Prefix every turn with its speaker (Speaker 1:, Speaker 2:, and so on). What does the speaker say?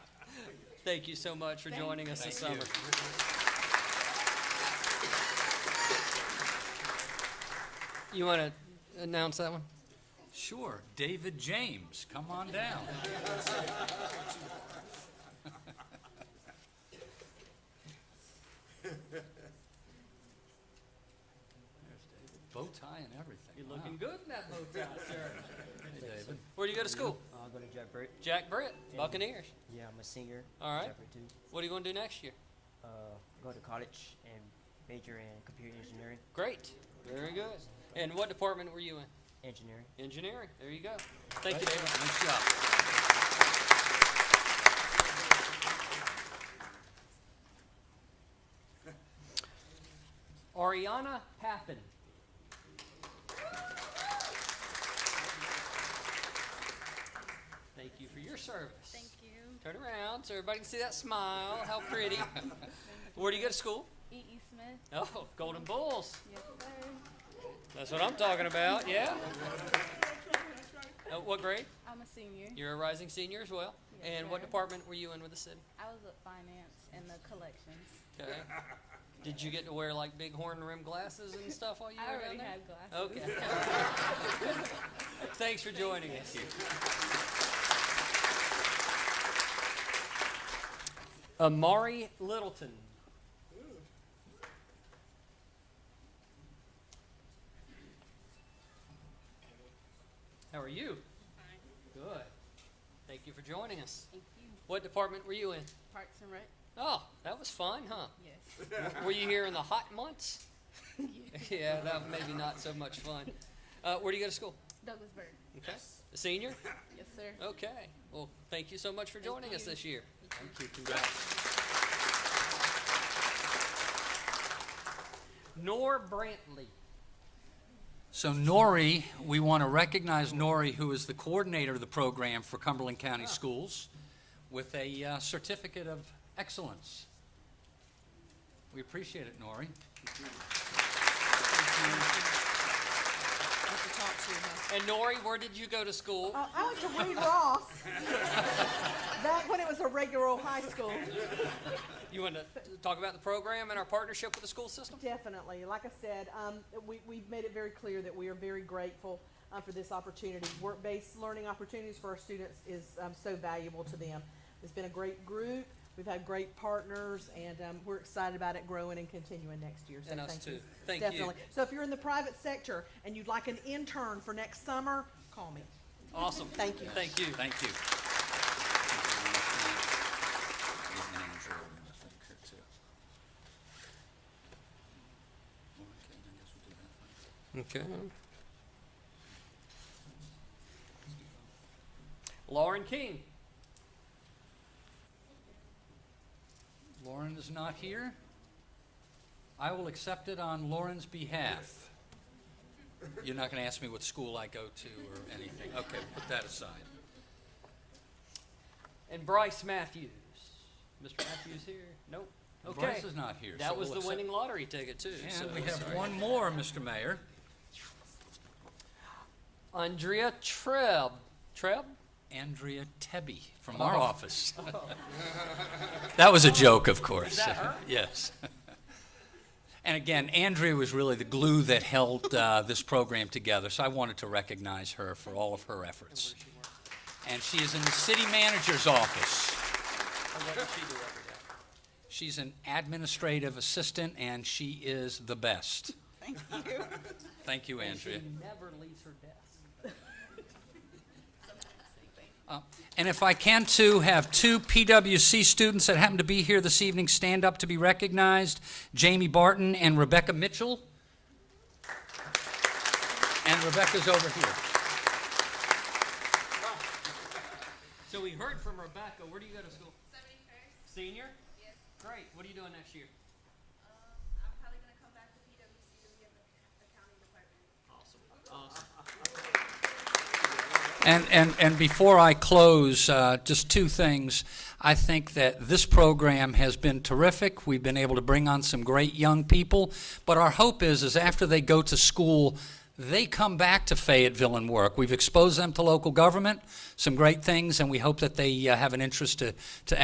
Speaker 1: Thank you so much for joining us this summer. You want to announce that one?
Speaker 2: Sure, David James, come on down. There's David, Bow tie and everything.
Speaker 1: You're
Speaker 2: Wow.
Speaker 1: looking good in that bow tie, sir.
Speaker 2: Hey, David.
Speaker 1: Where do you go to school?
Speaker 3: I'll Uh, go to Jack Burt.
Speaker 1: Jack Brett, Buccaneers.
Speaker 3: Yeah, I'm a singer.
Speaker 1: All right.
Speaker 3: Jack Burt too.
Speaker 1: What are you going to do next year?
Speaker 3: Uh, go to college and major in computer engineering.
Speaker 1: Great. Very good. And what department were you in?
Speaker 3: Engineering.
Speaker 1: Engineering. There you go. Thank you, David.
Speaker 2: Nice job.
Speaker 1: Ariana Pappin. Thank you for your service.
Speaker 4: Thank you.
Speaker 1: Turn around so everybody can see that smile. How pretty. Where do you go to school?
Speaker 4: E.E. E. Smith.
Speaker 1: Oh, Golden Bulls.
Speaker 4: Yes, sir.
Speaker 1: That's what I'm talking about, yeah. Uh, what grade?
Speaker 4: I'm a senior.
Speaker 1: You're a rising senior as well.
Speaker 4: Yes,
Speaker 1: And what
Speaker 4: sir.
Speaker 1: department were you in with the city?
Speaker 4: I was at finance and the collections.
Speaker 1: Okay. Did you get to wear like big horn rim glasses and stuff while you
Speaker 4: I
Speaker 1: were down
Speaker 4: already
Speaker 1: there?
Speaker 4: have glasses.
Speaker 1: Okay. Thanks for joining us. Amari Littleton. How are you? Fine. Good. Thank you for joining us.
Speaker 4: Thank you.
Speaker 1: What department were you in?
Speaker 4: Parks and Rec?
Speaker 1: Oh, that was fun, huh?
Speaker 4: Yes.
Speaker 1: Were you here in the hot months? yeah, that was maybe not so much fun. Uh, where do you go to school?
Speaker 4: Douglasburg?
Speaker 1: Okay. A senior?
Speaker 4: Yes, sir.
Speaker 1: Okay. Well, thank you so much for joining us
Speaker 4: you.
Speaker 1: this year.
Speaker 2: Thank you, congrats.
Speaker 1: Nor Brantley.
Speaker 2: So Nori, we want to recognize Nori, who is the coordinator of the program for Cumberland
Speaker 1: Ah.
Speaker 2: County Schools, with a uh, certificate of excellence. We appreciate it, Nori.
Speaker 1: And Nori, where did you go to school?
Speaker 5: Uh, I went to Reed Ross. Back when it was a regular old high school,
Speaker 1: You want to talk about the program and our partnership with the school system?
Speaker 5: definitely. Like I said, um, we, we've made it very clear that we are very grateful uh, for this opportunity. Work-based learning opportunities for our students is um, so valuable to them. It's been a great group. We've had great partners, and um, we're excited about it growing and continuing next year. So
Speaker 1: And us
Speaker 5: thank
Speaker 1: too.
Speaker 5: you.
Speaker 1: Thank you.
Speaker 5: definitely. So if you're in the private sector and you'd like an intern for next summer, call me.
Speaker 1: Awesome.
Speaker 5: Thank you.
Speaker 1: Thank you.
Speaker 2: Thank you.
Speaker 1: Okay. Lauren King.
Speaker 2: Lauren is not here. I will accept it on Lauren's behalf. You're not going to ask me what school I go to or anything. Okay, put that aside.
Speaker 1: And Bryce Matthews. Mr. Matthews here? Nope. Okay.
Speaker 2: Bryce is not here. so
Speaker 1: That was
Speaker 2: we'll
Speaker 1: the
Speaker 2: accept-
Speaker 1: winning lottery ticket too. so
Speaker 2: And we have
Speaker 1: sorry.
Speaker 2: one more, Mr. Mayor.
Speaker 1: Andrea Treb. Treb?
Speaker 2: Andrea Tebby from
Speaker 1: Oh.
Speaker 2: our office. That was a joke, of course.
Speaker 1: that her?
Speaker 2: Yes. And again, Andrea was really the glue that held uh, this program together, so I wanted to recognize her for all of her efforts. And she is in the city manager's office.
Speaker 1: And what does she do every day?
Speaker 2: She's an administrative assistant, and she is the best. Thank you. Thank you,
Speaker 1: And she
Speaker 2: Andrea.
Speaker 1: never leaves her desk.
Speaker 2: And if I can too, have two PWC students that happen to be here this evening stand up to be recognized, Jamie Barton and Rebecca Mitchell. And Rebecca's over here.
Speaker 1: So we heard from Rebecca. Where do you go to school? 71st. Senior? Yes. Great. What are you doing next year?
Speaker 6: Um, I'm probably gonna come back to PWC to be in the accounting department.
Speaker 2: And, and, and before I close, uh, just two things. I think that this program has been terrific. We've been able to bring on some great young people. But our hope is, is after they go to school, they come back to Fayetteville and work. We've exposed them to local government, some great things, and we hope that they uh, have an interest to, to